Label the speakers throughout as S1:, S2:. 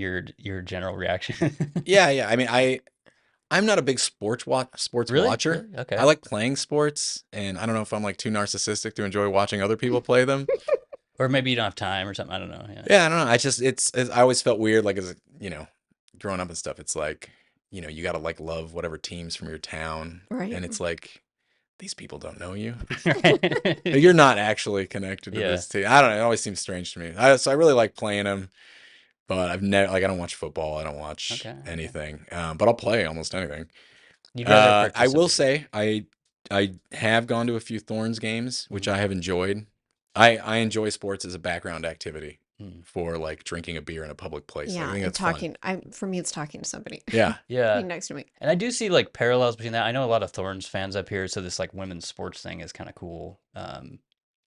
S1: your your general reaction.
S2: Yeah, yeah. I mean, I I'm not a big sports watch sports
S1: really?
S2: watcher.
S1: Really? Okay.
S2: I like playing sports, and I don't know if I'm like too narcissistic to enjoy watching other people play them.
S1: or maybe you don't have time or something. I don't know. Yeah.
S2: yeah, I don't know. I just it's, it's I always felt weird, like as a, you know, growing up and stuff. It's like you know you got to like love whatever teams from your town,
S3: Right.
S2: and it's like these people don't know you.
S1: Right.
S2: You're not actually connected to
S1: Yeah.
S2: this team. I don't know. It always seems strange to me. I, so I really like playing them, but I've never like I don't watch football. I don't watch
S1: Okay, okay.
S2: anything. Um, but I'll play almost anything.
S1: You'd
S2: Uh,
S1: rather
S2: I will
S1: participate.
S2: say I I have gone to a few Thorns games, which
S1: Mm.
S2: I have enjoyed. I I enjoy sports as a background activity
S1: Mm.
S2: for like drinking a beer in a public place.
S3: yeah,
S2: I
S3: and
S2: think that's fun.
S3: talking. I'm for me, it's talking to somebody
S2: Yeah,
S1: Yeah.
S3: being next to me.
S1: And I do see like parallels between that. I know a lot of Thorns fans up here, so this like women's sports thing is kind of cool. Um,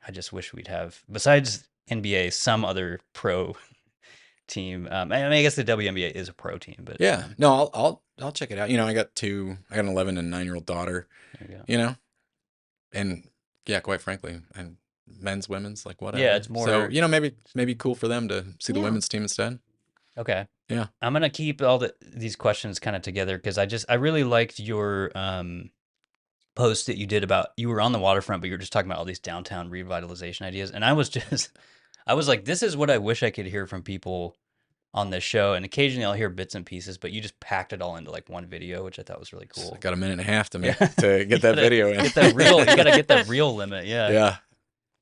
S1: I just wish we'd have besides NBA some other pro team. Um, I, mean, I guess the WNBA is a pro team, but
S2: yeah. No, I'll I'll I'll check it out. You know, I got two. I got an eleven and nine year old daughter.
S1: there you go.
S2: You know, and yeah, quite frankly, and men's, women's, like whatever.
S1: it's more-
S2: So you know, maybe maybe cool for them to see the
S3: Yeah.
S2: women's team instead.
S1: Okay.
S2: Yeah.
S1: I'm gonna keep all the, these questions kind of together because I just I really liked your um post that you did about you were on the waterfront, but you were just talking about all these downtown revitalization ideas, and I was just I was like, this is what I wish I could hear from people on this show, and occasionally I'll hear bits and pieces, but you just packed it all into like one video, which I thought was really
S2: So
S1: cool.
S2: I got a minute and a half to make
S1: Yeah.
S2: to
S1: You
S2: get that
S1: gotta
S2: video in.
S1: Get that real, you gotta get that real limit, yeah.
S2: yeah.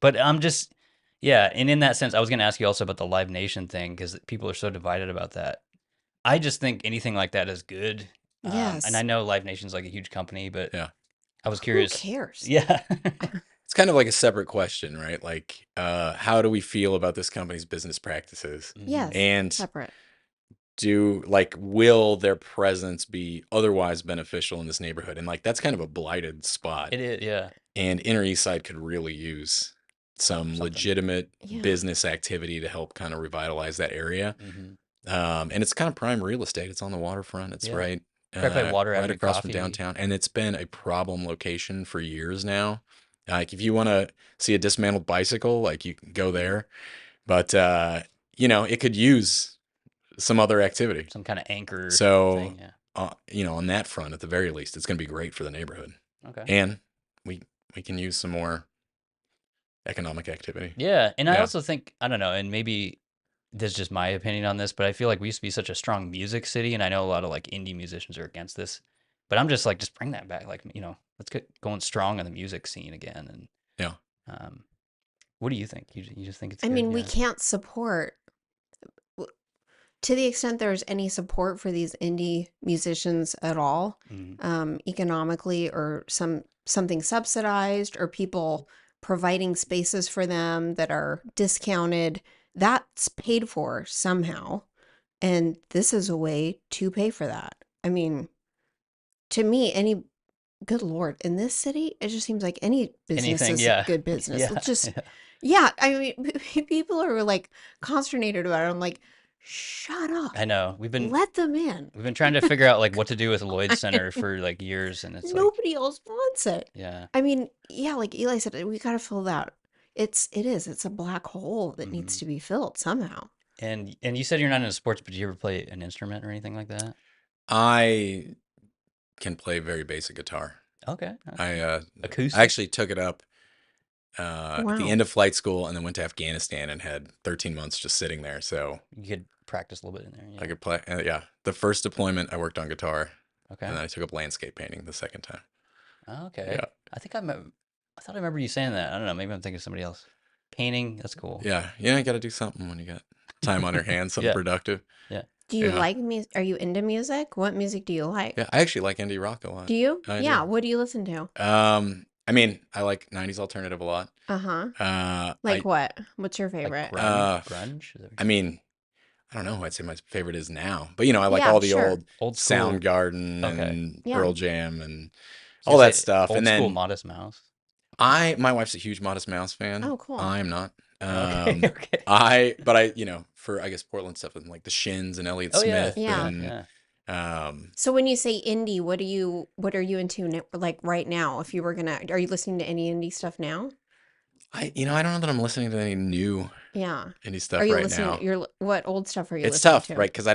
S1: But I'm just, yeah. And in that sense, I was going to ask you also about the Live Nation thing because people are so divided about that. I just think anything like that is good. Um,
S3: Yes.
S1: and I know Live Nation's like a huge company, but
S2: Yeah.
S1: I was curious.
S3: Who cares?
S1: Yeah.
S2: It's kind of like a separate question, right? Like, uh, how do we feel about this company's business practices?
S3: Yes.
S2: And
S3: Separate.
S2: do like, will their presence be otherwise beneficial in this neighborhood? And like, that's kind of a blighted spot.
S1: It is. Yeah.
S2: And Inner East Side could really use some
S1: Something.
S2: legitimate
S3: Yeah.
S2: business activity to help kind of revitalize that area.
S1: Mhm.
S2: Um, and it's kind of prime real estate. It's on the waterfront. It's
S1: Yeah.
S2: right, uh,
S1: Right by Water
S2: right
S1: Avenue
S2: across
S1: Coffee.
S2: from downtown, and it's been a problem location for years now. Like if you want to see a dismantled bicycle, like you can go there, but uh, you know it could use some other activity.
S1: Some kind of anchor.
S2: So,
S1: thing, yeah.
S2: Uh, you know, on that front, at the very least, it's going to be great for the neighborhood,
S1: Okay.
S2: and we we can use some more economic activity.
S1: Yeah, and I
S2: Yeah.
S1: also think I don't know, and maybe this is just my opinion on this, but I feel like we used to be such a strong music city, and I know a lot of like indie musicians are against this, but I'm just like, just bring that back, like you know, let's get going strong on the music scene again, and
S2: Yeah.
S1: Um, what do you think? You you just think it's?
S3: I
S1: good?
S3: mean, we
S1: Yeah.
S3: can't support to the extent there's any support for these indie musicians at all,
S1: Mhm.
S3: um, economically or some something subsidized or people providing spaces for them that are discounted. That's paid for somehow, and this is a way to pay for that. I mean, to me, any good lord in this city, it just seems like any business
S1: Anything,
S3: is
S1: yeah.
S3: good business.
S1: Yeah,
S3: Let's just
S1: yeah.
S3: yeah, I mean, people are like consternated about it. I'm like, shut up.
S1: I know we've been
S3: Let them in.
S1: we've been trying to figure out like what to do with Lloyd
S3: I
S1: Center
S3: know.
S1: for like years, and it's like,
S3: Nobody else wants it.
S1: yeah,
S3: I mean, yeah, like Eli said, we got to fill that. It's it is. It's a black hole that needs
S1: Mhm.
S2: Mm-hmm.
S3: to be filled somehow.
S1: and and you said you're not into sports, but do you ever play an instrument or anything like that?
S2: I can play very basic guitar.
S1: Okay, uh,
S2: I uh,
S1: acoustic.
S2: I actually took it up uh, at
S3: Wow.
S2: the end of flight school and then went to Afghanistan and had 13 months just sitting there. So
S1: you could practice a little bit in there. Yeah.
S2: I could play. Uh, yeah. The first deployment, I worked on guitar
S1: okay.
S2: and then I took up landscape painting the second time.
S1: Oh, Okay.
S2: Yeah.
S1: I think I remember, I thought I remember you saying that. I don't know. Maybe I'm thinking of somebody else. Painting. That's cool.
S2: Yeah. Yeah. You got to do something when you got time on your hands, something
S1: Yeah.
S2: productive.
S3: Do you
S2: Yeah.
S3: like music? Are you into music? What music do you like?
S2: Yeah. I actually like indie rock a lot.
S3: Do you?
S2: I do.
S3: yeah. What do you listen to?
S2: Um, I mean, I like 90s alternative a lot.
S3: Uh huh.
S2: Uh,
S3: Like
S2: I,
S3: what? What's your
S1: Like
S3: favorite?
S1: grunge.
S2: Uh,
S1: grunge? Is that what
S2: I
S1: you-
S2: mean, I don't know who I'd say my favorite is now, but you know, I like
S3: Yeah,
S2: all the
S3: sure.
S2: old
S1: old school-
S2: Soundgarden
S1: Okay.
S2: and
S3: Yeah.
S2: Pearl Jam
S1: I
S2: and
S1: was
S2: all
S1: gonna
S2: that
S1: say
S2: stuff,
S1: Old
S2: and
S1: school
S2: then-
S1: Modest Mouse.
S2: I my wife's a huge Modest Mouse fan.
S3: Oh, cool.
S2: I'm not.
S1: Okay.
S2: Um,
S1: okay.
S2: I but I you know for I guess Portland stuff and like the Shins and Elliott
S1: Oh, yeah.
S2: Smith
S3: Yeah.
S2: and
S1: Yeah.
S2: um
S3: so when you say indie, what do you what are you into n- like right now? If you were gonna, are you listening to any indie stuff now?
S2: I you know I don't know that I'm listening to any new
S3: Yeah.
S2: indie stuff
S3: are you
S2: right
S3: listening?
S2: now.
S3: You're what old stuff are you?
S2: It's
S3: listening
S2: tough,
S3: to?
S2: right? Because